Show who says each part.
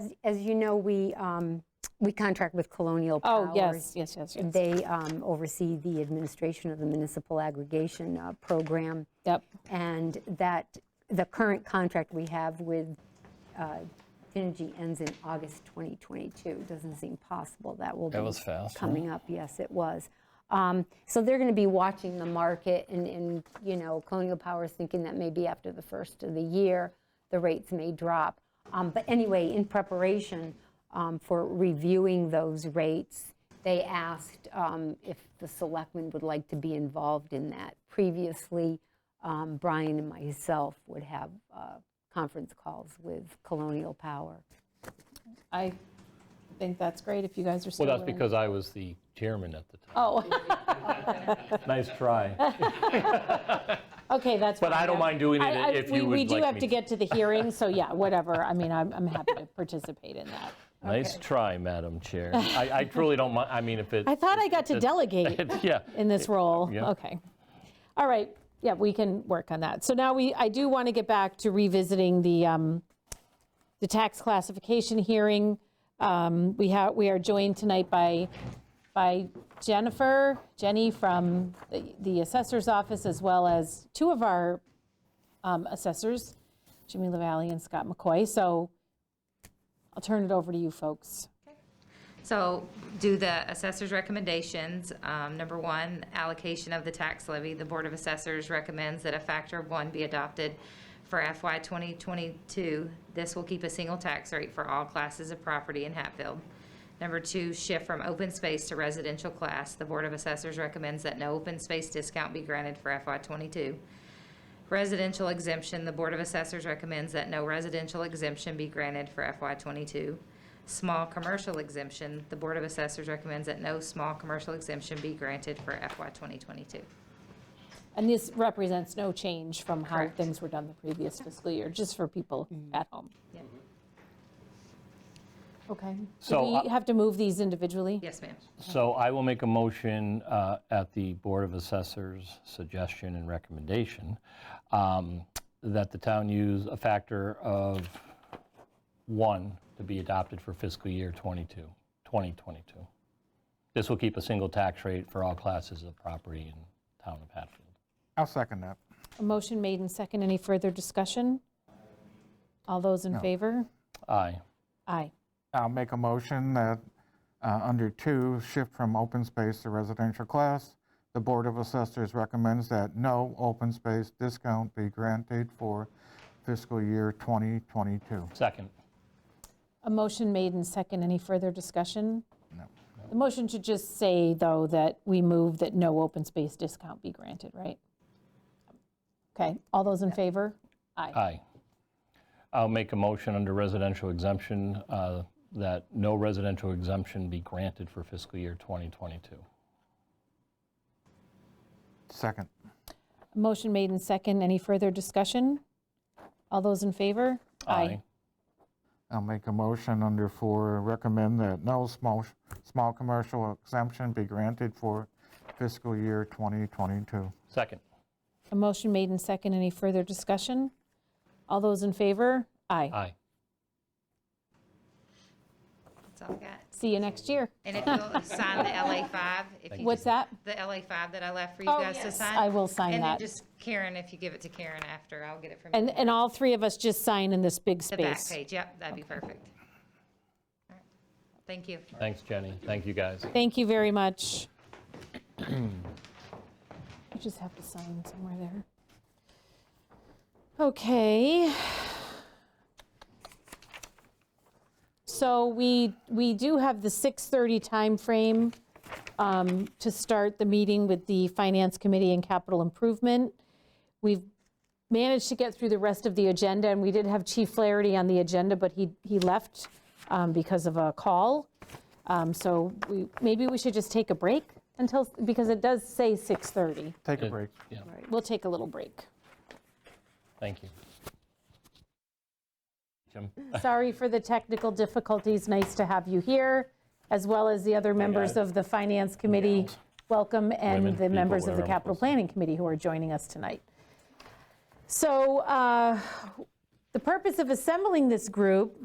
Speaker 1: as, as you know, we, um, we contract with Colonial Powers.
Speaker 2: Oh, yes, yes, yes, yes.
Speaker 1: They um, oversee the administration of the municipal aggregation uh, program.
Speaker 2: Yep.
Speaker 1: And that, the current contract we have with uh, Finergy ends in August 2022. Doesn't seem possible that will be.
Speaker 3: was fast, huh?
Speaker 1: Coming up, yes, it was. Um, So they're going to be watching the market and, and, you know, Colonial Powers thinking that maybe after the first of the year, the rates may drop. Um, But anyway, in preparation um, for reviewing those rates, they asked um, if the selectmen would like to be involved in that. Previously, um, Brian and myself would have uh, conference calls with Colonial Power.
Speaker 2: I think that's great if you guys are still
Speaker 3: Well,
Speaker 2: willing.
Speaker 3: that's because I was the chairman at the time.
Speaker 2: Oh,
Speaker 3: Nice try.
Speaker 2: okay, that's.
Speaker 3: But
Speaker 2: fine.
Speaker 3: I don't mind doing it
Speaker 2: I- I-
Speaker 3: if
Speaker 2: we-
Speaker 3: you would
Speaker 2: We do
Speaker 3: like
Speaker 2: have
Speaker 3: me
Speaker 2: to
Speaker 3: to.
Speaker 2: get to the hearing, so yeah, whatever. I mean, I'm, I'm happy to participate in that.
Speaker 3: Nice try, Madam Chair. I I truly don't mind, I mean, if it,
Speaker 2: I thought I got to delegate
Speaker 3: yeah.
Speaker 2: in this role.
Speaker 3: yeah.
Speaker 2: Okay. All right, yeah, we can work on that. So now we, I do want to get back to revisiting the, um, the tax classification hearing. Um, We have, we are joined tonight by, by Jennifer, Jenny from the- the assessor's office, as well as two of our um, assessors, Jimmy LaValle and Scott McCoy. So I'll turn it over to you folks.
Speaker 4: So do the assessor's recommendations. Um, Number one, allocation of the tax levy. The Board of Assessors recommends that a factor of one be adopted for FY 2022. This will keep a single tax rate for all classes of property in Hatfield. Number two, shift from open space to residential class. The Board of Assessors recommends that no open space discount be granted for FY '22. Residential exemption, the Board of Assessors recommends that no residential exemption be granted for FY '22. Small commercial exemption, the Board of Assessors recommends that no small commercial exemption be granted for FY 2022.
Speaker 2: And this represents no change from how
Speaker 4: Correct.
Speaker 2: things were done the previous fiscal year, just for people at home.
Speaker 4: Yeah.
Speaker 2: Okay.
Speaker 3: So,
Speaker 2: Do
Speaker 3: uh,
Speaker 2: we have to move these individually?
Speaker 4: Yes, ma'am.
Speaker 3: So I will make a motion uh, at the Board of Assessors' suggestion and recommendation um, that the town use a factor of one to be adopted for fiscal year 22, 2022. This will keep a single tax rate for all classes of property in town of Hatfield.
Speaker 5: I'll second that.
Speaker 2: A motion made and second. Any further discussion? All those in favor?
Speaker 3: Aye.
Speaker 2: Aye.
Speaker 5: I'll make a motion that, uh, under two, shift from open space to residential class. The Board of Assessors recommends that no open space discount be granted for fiscal year 2022.
Speaker 3: Second.
Speaker 2: A motion made and second. Any further discussion? No. The motion should just say, though, that we move that no open space discount be granted, right? Okay. All those in favor? Aye.
Speaker 3: Aye. I'll make a motion under residential exemption uh, that no residential exemption be granted for fiscal year 2022.
Speaker 5: Second.
Speaker 2: Motion made and second. Any further discussion? All those in favor?
Speaker 5: I'll make a motion under four, recommend that no small, small commercial exemption be granted for fiscal year 2022.
Speaker 3: Second.
Speaker 2: A motion made and second. Any further discussion? All those in favor? Aye.
Speaker 3: Aye.
Speaker 4: That's all I got.
Speaker 2: See you next year.
Speaker 4: And if you'll sign the LA 5, if you,
Speaker 2: What's that?
Speaker 4: the LA 5 that I left for you
Speaker 2: Oh,
Speaker 4: guys to
Speaker 2: yes.
Speaker 4: sign.
Speaker 2: I will sign
Speaker 4: And then
Speaker 2: that.
Speaker 4: just Karen, if you give it to Karen after, I'll get it from you.
Speaker 2: And, and all three of us just sign in this big
Speaker 4: The back
Speaker 2: space.
Speaker 4: page, yep, that'd be perfect. All right. Thank you.
Speaker 3: Thanks, Jenny. Thank you, guys.
Speaker 2: Thank you very much. You just have to sign somewhere there. Okay. So we, we do have the 6:30 timeframe um, to start the meeting with the Finance Committee and Capital Improvement. We've managed to get through the rest of the agenda, and we did have Chief Flaherty on the agenda, but he, he left um, because of a call. Um, So we, maybe we should just take a break until, because it does say 6:30.
Speaker 5: Take a break.
Speaker 3: Yeah,
Speaker 2: We'll take a little break.
Speaker 3: thank you. Jim?
Speaker 2: Sorry for the technical difficulties. Nice to have you here, as well as the other members of the Finance Committee. Welcome,
Speaker 3: Women,
Speaker 2: and the
Speaker 3: people,
Speaker 2: members of
Speaker 3: whatever
Speaker 2: the
Speaker 3: I'm
Speaker 2: Capital
Speaker 3: supposed to-
Speaker 2: Planning Committee who are joining us tonight. So uh, the purpose of assembling this group